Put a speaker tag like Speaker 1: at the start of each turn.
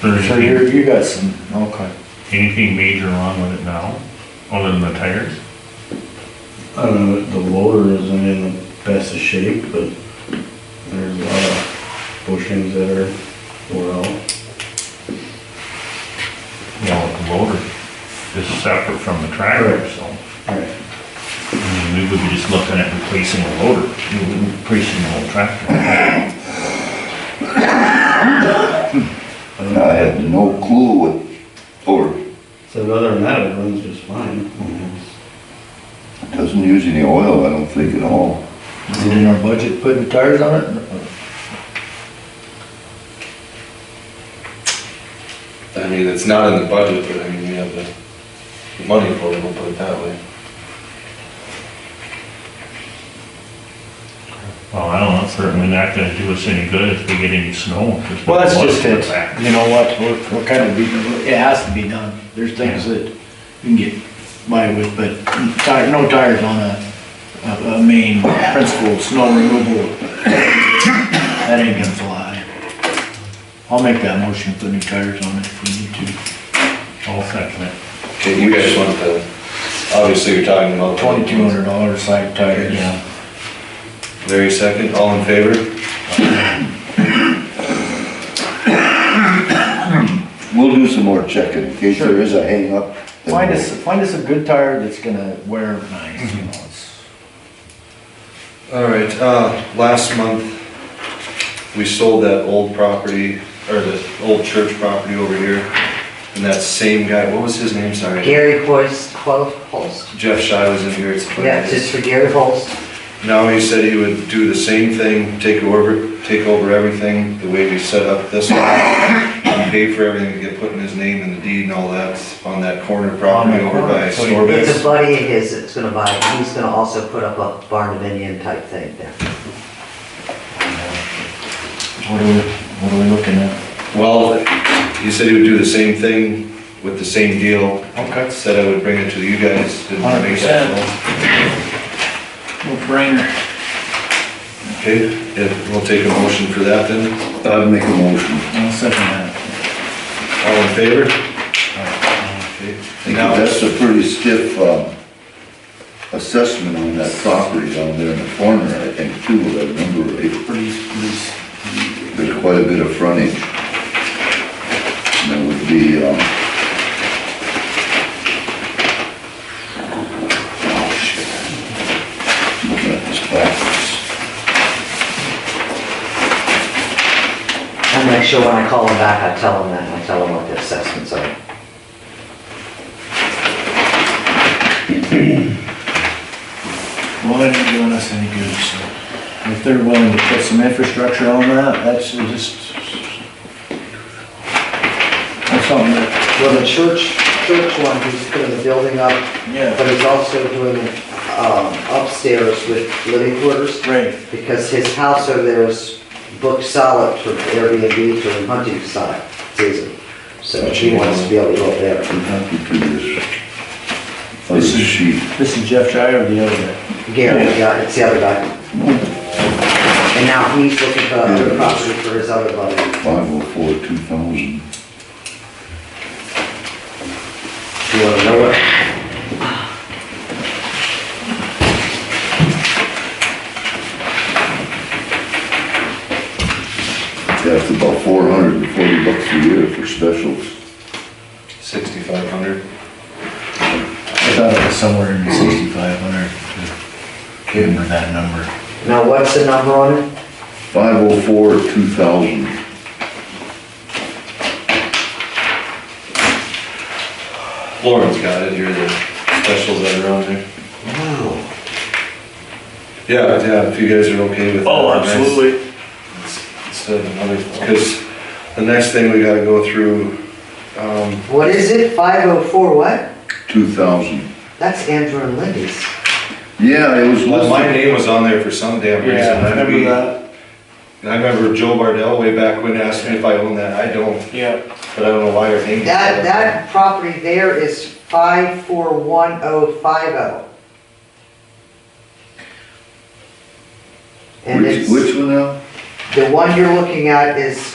Speaker 1: There's
Speaker 2: So you're, you got some, okay.
Speaker 1: anything major wrong with it now, other than the tires?
Speaker 3: Uh, the loader isn't in the best of shape, but there's a lot of bushings that are wore out.
Speaker 1: You know, the loader is separate from the tractor,
Speaker 3: Correct.
Speaker 1: so.
Speaker 3: Right.
Speaker 1: I mean, we would be just looking at replacing a loader, replacing the whole tractor.
Speaker 4: I had no clue what, or
Speaker 3: So other than that, it runs just fine.
Speaker 4: doesn't use any oil, I don't think at all.
Speaker 2: Is it in our budget putting tires on it?
Speaker 5: I mean, it's not in the budget, but I mean, we have the money for it, we'll put it that way.
Speaker 1: Well, I don't know, it's certainly not gonna do us any good if we get any snow. 'cause
Speaker 2: Well, that's
Speaker 1: the
Speaker 2: just
Speaker 1: water's
Speaker 2: it,
Speaker 1: back.
Speaker 2: you know what, what- what kind of, be- it has to be done. There's things that you can get by with, but tire, no tires on a, a, a main principle, snow removal. That ain't gonna fly. I'll make that motion, put new tires on it if we need to.
Speaker 1: I'll second it.
Speaker 5: You guys want the, obviously you're talking about.
Speaker 2: Twenty-two hundred dollars side tires.
Speaker 1: Yeah.
Speaker 5: Larry second, all in favor?
Speaker 4: We'll do some more checking in case there is a hangup. then
Speaker 2: Find
Speaker 4: we'll-
Speaker 2: us, find us a good tire that's gonna wear nice, you know, it's.
Speaker 5: All right, uh, last month, we sold that old property, or the old church property over here. And that same guy, what was his name, sorry?
Speaker 6: Gary Hoist, Quote Holst.
Speaker 5: Jeff Shy was in here. it's-
Speaker 6: Yeah, just for Gary Holst.
Speaker 5: Now he said he would do the same thing, take over, take over everything, the way we set up this one. And pay for everything, get put in his name and the deed and all that on that corner property
Speaker 2: On that
Speaker 5: over by
Speaker 2: corner, so he-
Speaker 6: It's a
Speaker 5: Storbeck.
Speaker 6: buddy of his that's gonna buy, it. he's gonna also put up a barn dominium type thing there.
Speaker 2: What are we, what are we looking at?
Speaker 5: Well, he said he would do the same thing with the same deal.
Speaker 2: Okay.
Speaker 5: Said I would bring it to you guys, didn't make
Speaker 2: 100%.
Speaker 5: that deal.
Speaker 2: No brainer.
Speaker 5: Okay, if- we'll take a motion for that then.
Speaker 4: I'd make a motion.
Speaker 2: I'll second that.
Speaker 5: All in favor? Okay.
Speaker 4: I think
Speaker 5: Now,
Speaker 4: That's a pretty stiff, um, assessment on that property down there in the corner, I think, too, if I remember
Speaker 2: Pretty,
Speaker 4: right.
Speaker 2: pretty.
Speaker 4: There's quite a bit of frontage. And that would be, um, oh, shit. Looking at this backwards.
Speaker 6: I'll make sure when I call him back, I tell him that, and I tell him what the assessments are.
Speaker 2: Well, they ain't doing us any good, so. If they're willing to put some infrastructure on that, that's just. That's something that,
Speaker 6: Well, the church, church one, he's putting the building up,
Speaker 2: yeah,
Speaker 6: but he's also doing um, upstairs with living quarters.
Speaker 2: right.
Speaker 6: because his house over there is booked solid for Airbnb for hunting si- season. So he wants to be able to go up there.
Speaker 4: What happened to this? Other
Speaker 2: This is-
Speaker 4: sheet.
Speaker 2: This is Jeff Shire or the other guy?
Speaker 6: Gary, yeah, it's the other guy. And now he's looking for a property for his other buddy.
Speaker 4: 504, 2000.
Speaker 6: You wanna know what?
Speaker 4: That's about 440 bucks a year for specials.
Speaker 5: 6,500.
Speaker 2: I thought it was somewhere in the sixty-five hundred. Give him that number.
Speaker 6: Now, what's the number on it?
Speaker 4: 504, 2000.
Speaker 5: Lauren's got it, here are the specials that are on there.
Speaker 6: Wow.
Speaker 5: Yeah, yeah, if you guys are okay with that.
Speaker 1: Oh,
Speaker 5: nice.
Speaker 1: absolutely.
Speaker 5: It's another, because the next thing we gotta go through, um,
Speaker 6: What is it? Five oh four what?
Speaker 4: 2000.
Speaker 6: That's Andrew and Lindy's.
Speaker 4: Yeah, it was
Speaker 5: well, my
Speaker 4: listed.
Speaker 5: name was on there for some damn reason. I'd be- And I remember Joe Bardell way back when asked me if I own that, I don't,
Speaker 2: Yeah.
Speaker 5: but I don't know why her name.
Speaker 6: That, that property there is five four one oh five oh. And
Speaker 4: Which,
Speaker 6: it's,
Speaker 4: which one now?
Speaker 6: the one you're looking at is